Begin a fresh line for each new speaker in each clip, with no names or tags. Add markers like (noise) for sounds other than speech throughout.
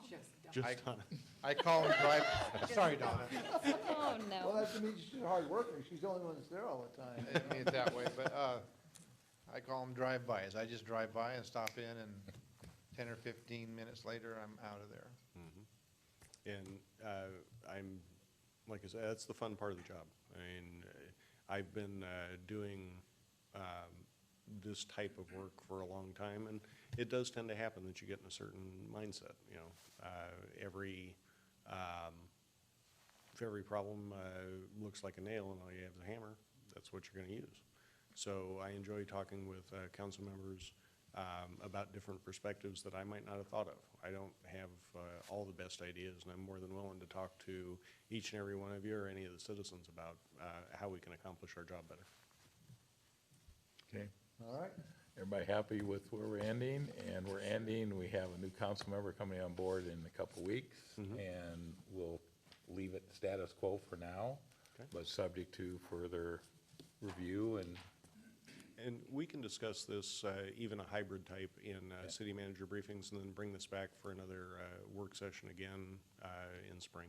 I-
Just on,
I call him private, sorry, Donna,
Oh,
Well,
no.
that's to mean she's a hard worker. She's the only one that's there all the
I
(laughs)
time.
didn't mean it that way, but, uh, I call them drive-bys. I just drive by and stop in and ten or fifteen minutes later, I'm out of there.
(laughs) and uh, I'm, like I said, that's the fun part of the job. I mean, uh, I've been uh, doing um, this type of work for a long time, and it does tend to happen that you get in a certain mindset, you know. Uh, Every, um, if every problem uh, looks like a nail and all you have is a hammer, that's what you're going to use. So I enjoy talking with uh, council members um, about different perspectives that I might not have thought of. I don't have uh, all the best ideas, and I'm more than willing to talk to each and every one of you or any of the citizens about uh, how we can accomplish our job better.
Okay,
All right.
everybody happy with where we're ending? And we're ending, we have a new council member coming on board in a couple weeks,
Mm-hmm.
and we'll leave it status quo for now,
Okay.
but subject to further review and
And we can discuss this, uh, even a hybrid type, in uh,
Yeah.
city manager briefings, and then bring this back for another uh, work session again uh, in spring,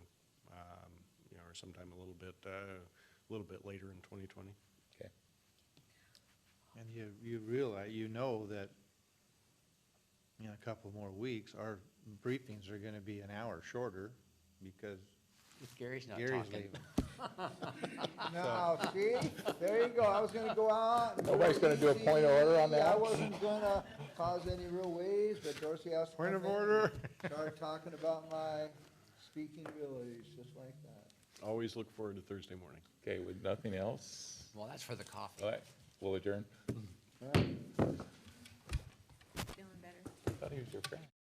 um, you know, or sometime a little bit, uh, a little bit later in 2020.
Okay.
And you, you realize, you know that in a couple more weeks, our briefings are gonna be an hour shorter because
If Gary's not
Gary's
talking.
leaving.
Now, see, there you go. I was gonna go out. and do
Nobody's gonna do a point of order on
it easy. I
that?
wasn't gonna cause any real waves, but Dorsey asked.
Point of
me and
order.
Started talking about my speaking abilities, just like that.
Always look forward to Thursday morning.
Okay, with nothing else,
Well, that's for the coffee.
all right, we'll adjourn.
All right.
Feeling better.
Thought he was your friend.